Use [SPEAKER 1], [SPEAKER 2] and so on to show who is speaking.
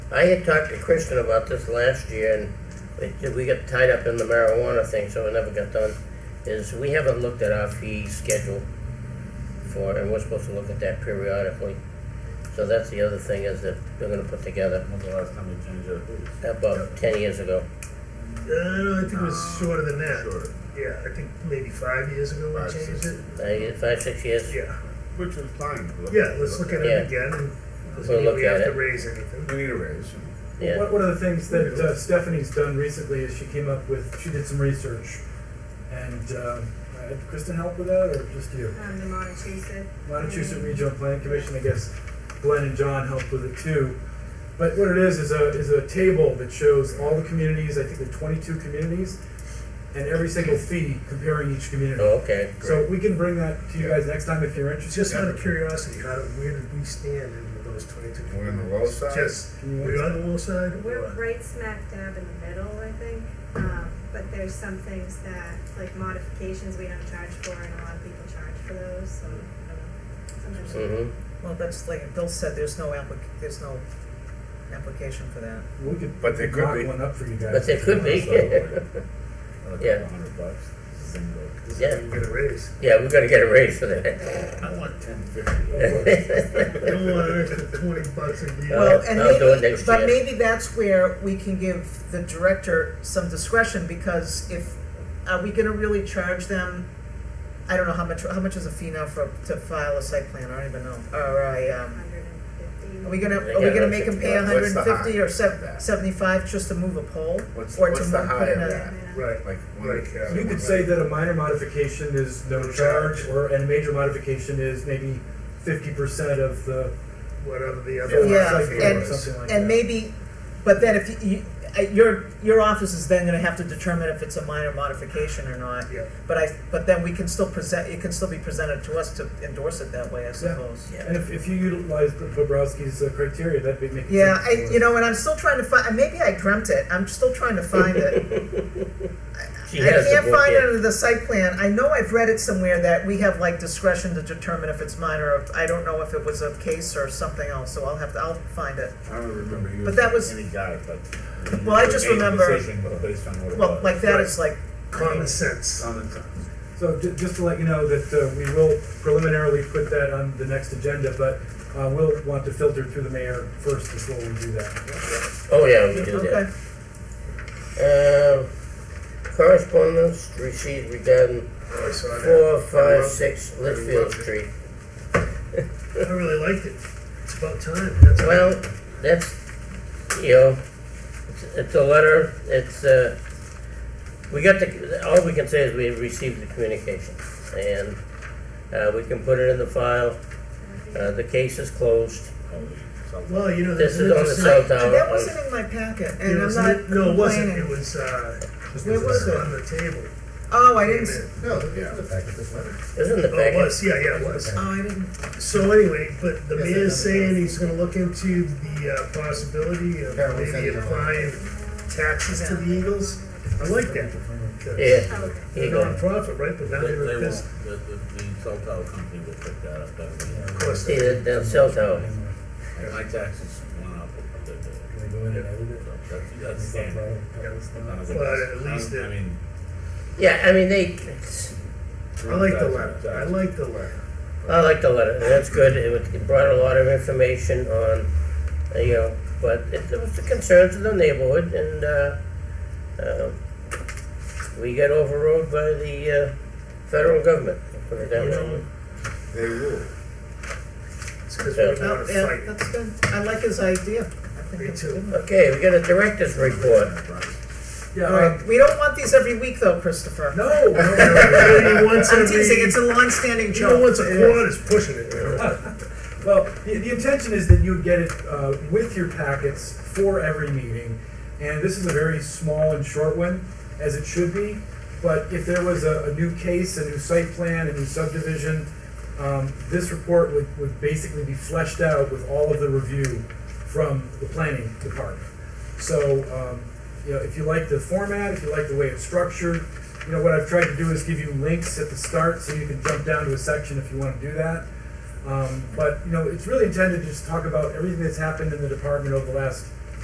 [SPEAKER 1] I had talked to Kristen about this last year, and it- we got tied up in the marijuana thing, so it never got done. Is we haven't looked at our fee schedule for, and we're supposed to look at that periodically. So that's the other thing is that we're gonna put together
[SPEAKER 2] When's the last time we changed that?
[SPEAKER 1] about ten years ago.
[SPEAKER 3] Uh, I think it was shorter than that.
[SPEAKER 2] Shorter.
[SPEAKER 3] Yeah, I think maybe five years ago we
[SPEAKER 2] Five, six
[SPEAKER 3] changed it.
[SPEAKER 1] Like, Uh, Five, six years.
[SPEAKER 3] Yeah,
[SPEAKER 2] Which is fine. Look-
[SPEAKER 3] yeah, let's look at
[SPEAKER 1] Yeah.
[SPEAKER 3] it again and
[SPEAKER 1] We'll
[SPEAKER 3] doesn't mean
[SPEAKER 1] look
[SPEAKER 3] we
[SPEAKER 1] at
[SPEAKER 3] have to
[SPEAKER 1] it.
[SPEAKER 3] raise anything.
[SPEAKER 2] We need a raise.
[SPEAKER 1] Yeah,
[SPEAKER 4] One, one of the things that uh, Stephanie's done recently is she came up with, she did some research. And um, uh, did Kristen help with that, or just you?
[SPEAKER 5] Um, the Montechusett.
[SPEAKER 4] Massachusetts Regional Planning Commission, I guess Glenn and John helped with it too. But what it is, is a, is a table that shows all the communities, I think there are twenty-two communities, and every single fee comparing each community.
[SPEAKER 1] oh, okay.
[SPEAKER 4] So we can bring that to you guys next time if you're
[SPEAKER 3] It's
[SPEAKER 4] interested.
[SPEAKER 3] just out of curiosity, how do, where did we stand in those twenty-two?
[SPEAKER 2] We're on the low side?
[SPEAKER 3] Just,
[SPEAKER 4] Can you-
[SPEAKER 3] we're on the low side? or
[SPEAKER 5] We're
[SPEAKER 3] what?
[SPEAKER 5] right smack dab in the middle, I think, um, but there's some things that, like modifications we don't charge for and a lot of people charge for those, so, I don't know. Sometimes we-
[SPEAKER 1] Mm-hmm.
[SPEAKER 6] Well, that's like Bill said, there's no applic, there's no application for that.
[SPEAKER 4] We could.
[SPEAKER 2] But there could
[SPEAKER 4] knock
[SPEAKER 2] be.
[SPEAKER 4] One up for you guys.
[SPEAKER 1] But there could be. Yeah.
[SPEAKER 2] A hundred bucks, single.
[SPEAKER 1] Yeah.
[SPEAKER 3] We're gonna raise.
[SPEAKER 1] Yeah, we gotta get a raise for that.
[SPEAKER 2] I want ten fifty.
[SPEAKER 3] I don't want an extra twenty bucks a year.
[SPEAKER 1] Well,
[SPEAKER 6] Well, and
[SPEAKER 1] I'll do it
[SPEAKER 6] maybe,
[SPEAKER 1] next
[SPEAKER 6] but
[SPEAKER 1] year.
[SPEAKER 6] maybe that's where we can give the director some discretion, because if, are we gonna really charge them? I don't know how much, how much is a fee now for, to file a site plan, I don't even know, or a, um,
[SPEAKER 5] 150.
[SPEAKER 6] are we
[SPEAKER 1] They
[SPEAKER 6] gonna, are we
[SPEAKER 1] got
[SPEAKER 6] gonna
[SPEAKER 1] about
[SPEAKER 6] make them
[SPEAKER 1] 50.
[SPEAKER 6] pay a
[SPEAKER 2] What's
[SPEAKER 6] hundred
[SPEAKER 2] the
[SPEAKER 6] and fifty
[SPEAKER 2] high
[SPEAKER 6] or
[SPEAKER 2] of
[SPEAKER 6] sev-
[SPEAKER 2] that?
[SPEAKER 6] seventy-five just to move a pole?
[SPEAKER 2] What's-
[SPEAKER 6] Or to
[SPEAKER 2] what's the
[SPEAKER 6] move- put
[SPEAKER 2] high
[SPEAKER 6] in
[SPEAKER 2] of
[SPEAKER 6] a-
[SPEAKER 2] that?
[SPEAKER 3] Right.
[SPEAKER 2] Like, one
[SPEAKER 3] Right.
[SPEAKER 2] acre.
[SPEAKER 4] You could say that a minor modification is no charge, or, and a major modification is maybe fifty percent of the.
[SPEAKER 3] Whatever the
[SPEAKER 4] full
[SPEAKER 3] other.
[SPEAKER 6] Yeah,
[SPEAKER 4] site fee or
[SPEAKER 6] and-
[SPEAKER 4] something like
[SPEAKER 6] And
[SPEAKER 4] that.
[SPEAKER 6] maybe, but then if you, uh, your, your office is then gonna have to determine if it's a minor modification or not.
[SPEAKER 3] Yeah.
[SPEAKER 6] But I, but then we can still present, it can still be presented to us to endorse it that way, I suppose.
[SPEAKER 4] And if, if you utilize the Bobrowski's uh, criteria, that'd be making.
[SPEAKER 6] Yeah, I, you know, and I'm still trying to find, maybe I dreamt it, I'm still trying to find it.
[SPEAKER 1] She
[SPEAKER 6] I
[SPEAKER 1] has the
[SPEAKER 6] can't
[SPEAKER 1] book
[SPEAKER 6] find it
[SPEAKER 1] here.
[SPEAKER 6] under the site plan, I know I've read it somewhere that we have like discretion to determine if it's minor, or I don't know if it was a case or something else, so I'll have to, I'll find it.
[SPEAKER 2] I don't remember you.
[SPEAKER 6] But that was-
[SPEAKER 2] Any guy, but.
[SPEAKER 6] Well, I just
[SPEAKER 2] Made the
[SPEAKER 6] remember-
[SPEAKER 2] Decision was based on what it
[SPEAKER 6] Well,
[SPEAKER 2] was.
[SPEAKER 6] like that is like,
[SPEAKER 3] Common sense.
[SPEAKER 2] On the time.
[SPEAKER 4] So ju- just to let you know that uh, we will preliminarily put that on the next agenda, but uh, we'll want to filter through the mayor first before we do that.
[SPEAKER 1] Oh, yeah, we do that.
[SPEAKER 6] okay.
[SPEAKER 1] Uh, correspondence received regarding
[SPEAKER 3] Oh, I saw that.
[SPEAKER 1] four,
[SPEAKER 3] I
[SPEAKER 1] five,
[SPEAKER 3] love-
[SPEAKER 1] six
[SPEAKER 3] I love
[SPEAKER 1] Litchfield
[SPEAKER 3] it.
[SPEAKER 1] Street.
[SPEAKER 3] I really liked it. It's about time. That's
[SPEAKER 1] Well, that's, you know, it's, it's a letter, it's, uh, we got the, all we can say is we received the communication. And, uh, we can put it in the file, uh, the case is closed.
[SPEAKER 3] Well, you know,
[SPEAKER 1] This
[SPEAKER 3] there's
[SPEAKER 1] is
[SPEAKER 3] an
[SPEAKER 1] on the cell
[SPEAKER 3] interesting.
[SPEAKER 1] tower.
[SPEAKER 6] That wasn't in my packet,
[SPEAKER 3] There
[SPEAKER 6] and I'm
[SPEAKER 3] was
[SPEAKER 6] not
[SPEAKER 3] an- no, it wasn't. It
[SPEAKER 6] complaining.
[SPEAKER 3] was. Uh,
[SPEAKER 6] Where was
[SPEAKER 3] it?
[SPEAKER 6] it?
[SPEAKER 3] On the table.
[SPEAKER 6] Oh, I didn't, s-
[SPEAKER 2] No, yeah. The fact that this letter.
[SPEAKER 1] It's in the
[SPEAKER 3] Oh, it
[SPEAKER 1] packet.
[SPEAKER 3] was. Yeah, yeah, it was.
[SPEAKER 6] oh, I didn't,
[SPEAKER 3] So anyway, but the
[SPEAKER 2] Yes, I
[SPEAKER 3] mayor's
[SPEAKER 2] remember.
[SPEAKER 3] saying he's going to look into the uh, possibility of
[SPEAKER 2] Yeah, we sent
[SPEAKER 3] maybe
[SPEAKER 2] it.
[SPEAKER 3] applying taxes to the Eagles. I like
[SPEAKER 1] Yeah,
[SPEAKER 3] that.
[SPEAKER 5] Oh, okay.
[SPEAKER 1] here
[SPEAKER 3] They're
[SPEAKER 1] you
[SPEAKER 3] a
[SPEAKER 1] go.
[SPEAKER 3] nonprofit, right? But now
[SPEAKER 7] They,
[SPEAKER 3] they're
[SPEAKER 7] they
[SPEAKER 3] a
[SPEAKER 7] won't,
[SPEAKER 3] business.
[SPEAKER 7] the, the, the cell tower company will pick that up, that'll be,
[SPEAKER 3] Of course,
[SPEAKER 1] See, the, the cell tower.
[SPEAKER 7] my taxes went up. the- the-
[SPEAKER 4] Can I go in and edit it?
[SPEAKER 7] so That's, that's standard. None of it-
[SPEAKER 3] But at least
[SPEAKER 7] I mean.
[SPEAKER 1] Yeah, I mean, they,
[SPEAKER 3] I like the
[SPEAKER 7] taxes,
[SPEAKER 3] letter. I
[SPEAKER 7] taxes.
[SPEAKER 3] like the letter.
[SPEAKER 1] I like the letter, and that's good, it was- it brought a lot of information on, uh, you know, but it it was the concerns of the neighborhood, and, uh, um, we got overruled by the, uh, federal government, put it that way.
[SPEAKER 2] They rule.
[SPEAKER 3] It's because
[SPEAKER 1] Yeah.
[SPEAKER 3] we're
[SPEAKER 6] oh,
[SPEAKER 3] not a
[SPEAKER 6] yeah,
[SPEAKER 3] fight.
[SPEAKER 6] that's good, I like his idea, I think
[SPEAKER 3] Me
[SPEAKER 6] it's
[SPEAKER 3] too.
[SPEAKER 6] good.
[SPEAKER 1] Okay, we got a director's report.
[SPEAKER 4] Yeah,
[SPEAKER 6] All
[SPEAKER 4] uh,
[SPEAKER 6] right, we don't want these every week though, Christopher.
[SPEAKER 4] no,
[SPEAKER 3] You
[SPEAKER 4] no,
[SPEAKER 3] know, maybe once
[SPEAKER 6] I'm
[SPEAKER 3] every-
[SPEAKER 6] teasing, it's a long-standing
[SPEAKER 3] You know,
[SPEAKER 6] joke.
[SPEAKER 3] once a quarter is pushing it. you know?
[SPEAKER 4] well, the, the intention is that you'd get it uh, with your packets for every meeting, and this is a very small and short one, as it should be. But if there was a, a new case, a new site plan, a new subdivision, um, this report would, would basically be fleshed out with all of the review from the planning department. So, um, you know, if you like the format, if you like the way it's structured, you know, what I've tried to do is give you links at the start so you can jump down to a section if you want to do that. Um, but, you know, it's really intended to just talk about everything that's happened in the department over the last